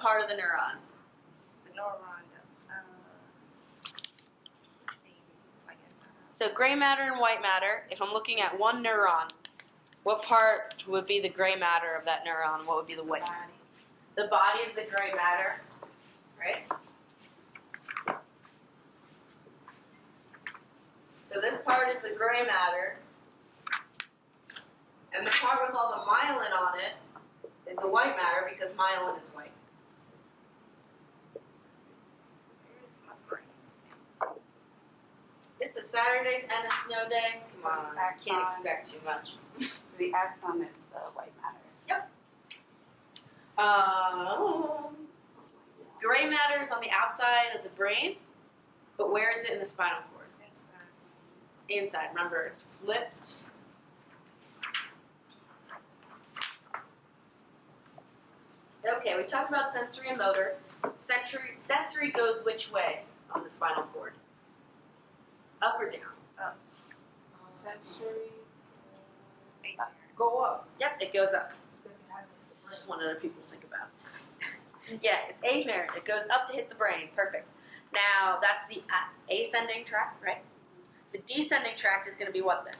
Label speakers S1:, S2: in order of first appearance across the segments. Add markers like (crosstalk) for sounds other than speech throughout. S1: part of the neuron?
S2: The neuron. Uh, I guess. I don't know.
S3: So gray matter and white matter, if I'm looking at one neuron, what part would be the gray matter of that neuron? What would be the white?
S2: Body.
S3: The body is the gray matter, right?
S1: So this part is the gray matter, and the part with all the myelin on it is the white matter because myelin is white.
S2: Where is my brain?
S1: It's a Saturday and a snow day. Come on, I can't
S4: Axon.
S1: expect too much.
S4: The axon is the white matter.
S1: Um,
S2: It's
S1: gray matter is on the outside of the brain, but where is it in the spinal cord?
S2: not-
S1: Inside. Remember, it's flipped. Okay, we talked about sensory and motor. Sensory, sensory goes which way on the spinal cord? Up or down?
S2: Oh.
S4: Sensory.
S2: Eight.
S5: Go up.
S1: Yep, it goes up.
S2: Because it has a-
S1: This is just one other people think about. yeah, it's afferent. It goes up to hit the brain. Perfect. Now that's the uh, ascending tract, right? The descending tract is going to be what then?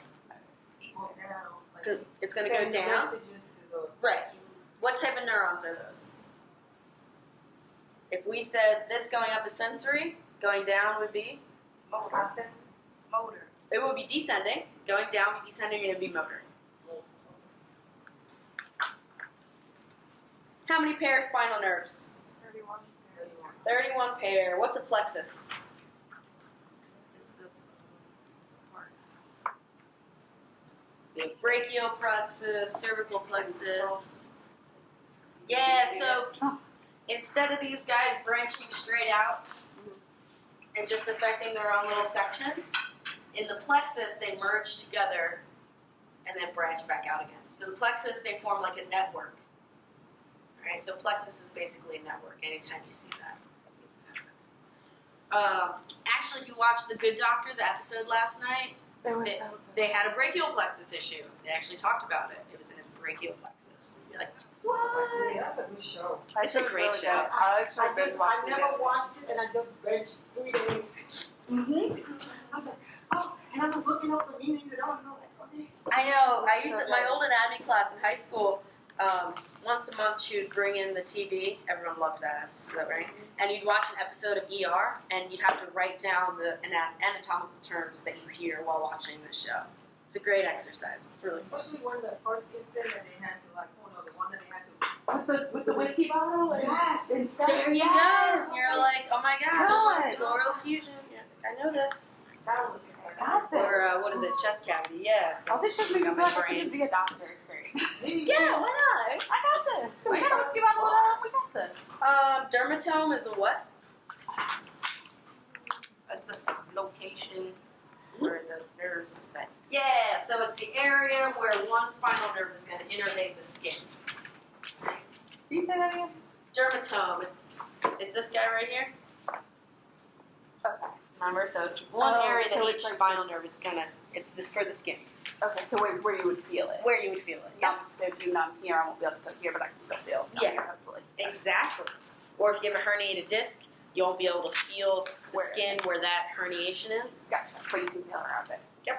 S5: Go down.
S1: It's gonna- It's going to go
S5: Send the
S1: down.
S5: Messages to the.
S1: Right. What type of neurons are those? If we said this going up is sensory, going down would be
S2: Motor.
S5: I send.
S2: Motor.
S1: it would be descending. Going down would be descending, and it'd be motor. How many pair of spinal nerves?
S2: Thirty-one.
S5: Thirty-one.
S1: Thirty-one pair. What's a plexus?
S2: Is the uh, part.
S1: We have brachial plexus, cervical plexus. Yeah, so instead of these guys branching straight out and just affecting their own little sections, in the plexus they merge together and then branch back out again. So the plexus they form like a network. Alright, so plexus is basically a network anytime you see that. it's a network. Um, actually, if you watched The Good Doctor, the episode last night,
S4: It was
S1: They-
S4: so
S1: they had a brachial plexus issue. They actually talked about it. It was in his brachial plexus. You're like, what?
S5: Yeah, that's a good show.
S4: I
S1: It's a
S4: should
S1: great
S4: really
S1: show.
S4: go. I actually
S5: I just,
S4: been watching
S5: I never watched it and I just benched three days.
S1: Mm-hmm.
S5: I was like, oh, and I was looking up the meanings and I was like, okay.
S1: I know. I used
S4: So
S1: to, my
S4: good.
S1: old anatomy class in high school. Um, once a month, she would bring in the TV. Everyone loved that episode, right? And you'd watch an episode of ER, and you'd have to write down the ana- anatomical terms that you hear while watching the show. It's a great exercise. It's really fun.
S5: Especially when the first incident that they had to like, oh no, the one that they had to.
S4: With the, with the whiskey bottle? and-
S5: Oh, Yes.
S4: and stuff?
S1: There you
S4: Oh, Yes!
S1: go. You're like, oh my
S4: Good.
S1: gosh, pleural fusion. Yeah, I know this.
S5: That was exciting.
S4: Got this.
S1: Or uh, what is it? Chest cavity. Yes.
S4: All this shit makes me
S1: Got
S4: feel
S1: my
S4: like I could
S1: brain.
S4: just be a doctor. It's great. (laughs)
S1: Yeah, why
S4: I got this.
S1: I
S4: We got a
S1: got
S4: whiskey bottle at home. We got this.
S1: not? Um, dermatome is a what?
S2: That's the location where the nerves affect.
S1: Hmm? Yeah, so it's the area where one spinal nerve is going to innervate the skin.
S4: Can you say that again?
S1: Dermatome, it's is this guy right here?
S4: Okay.
S1: Remember, so it's one
S4: Oh,
S1: area that
S4: so
S1: each
S4: it's like
S1: spinal
S4: this.
S1: nerve is gonna. It's this for the skin,
S4: Okay, so where, where you would feel it.
S1: where you would feel it.
S4: Um, so if you know I'm here, I won't be able to cook here, but I can still feel down
S1: Yeah.
S4: here, hopefully.
S1: Exactly. Or if you have a herniated disc, you won't be able to feel the
S4: Where?
S1: skin where that herniation is.
S4: Gotcha. But you can feel around it.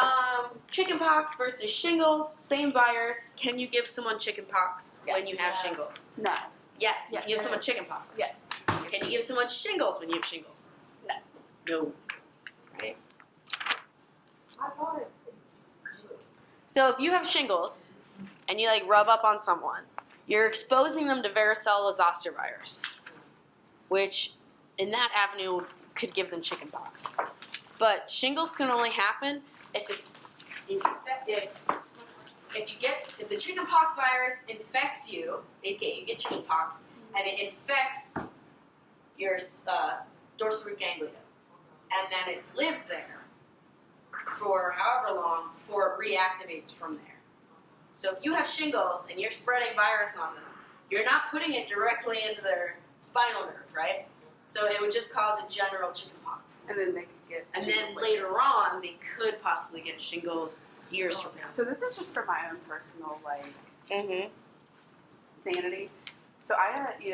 S1: Um, chickenpox versus shingles, same virus. Can you give someone chickenpox when
S4: Yes.
S1: you have
S2: Yeah.
S1: shingles?
S4: No.
S1: Yes, you
S4: Yeah.
S1: can give someone chickenpox.
S4: Yes.
S1: Can you give someone shingles when you have shingles?
S4: No.
S1: No.
S5: I thought it.
S1: So if you have shingles and you like rub up on someone, you're exposing them to varicella zoster virus, which in that avenue could give them chickenpox. But shingles can only happen if it's infected. If you get if the chickenpox virus infects you, it get, you get chickenpox, and it infects your uh, dorsal root ganglia, and then it lives there for however long before it reactivates from there. So if you have shingles and you're spreading virus on them, you're not putting it directly into their spinal nerve, right? So it would just cause a general chickenpox.
S4: And then they could get.
S1: And then later on, they could possibly get shingles years from now.
S4: So this is just for my own personal like
S1: Mm-hmm.
S4: sanity. So I had, you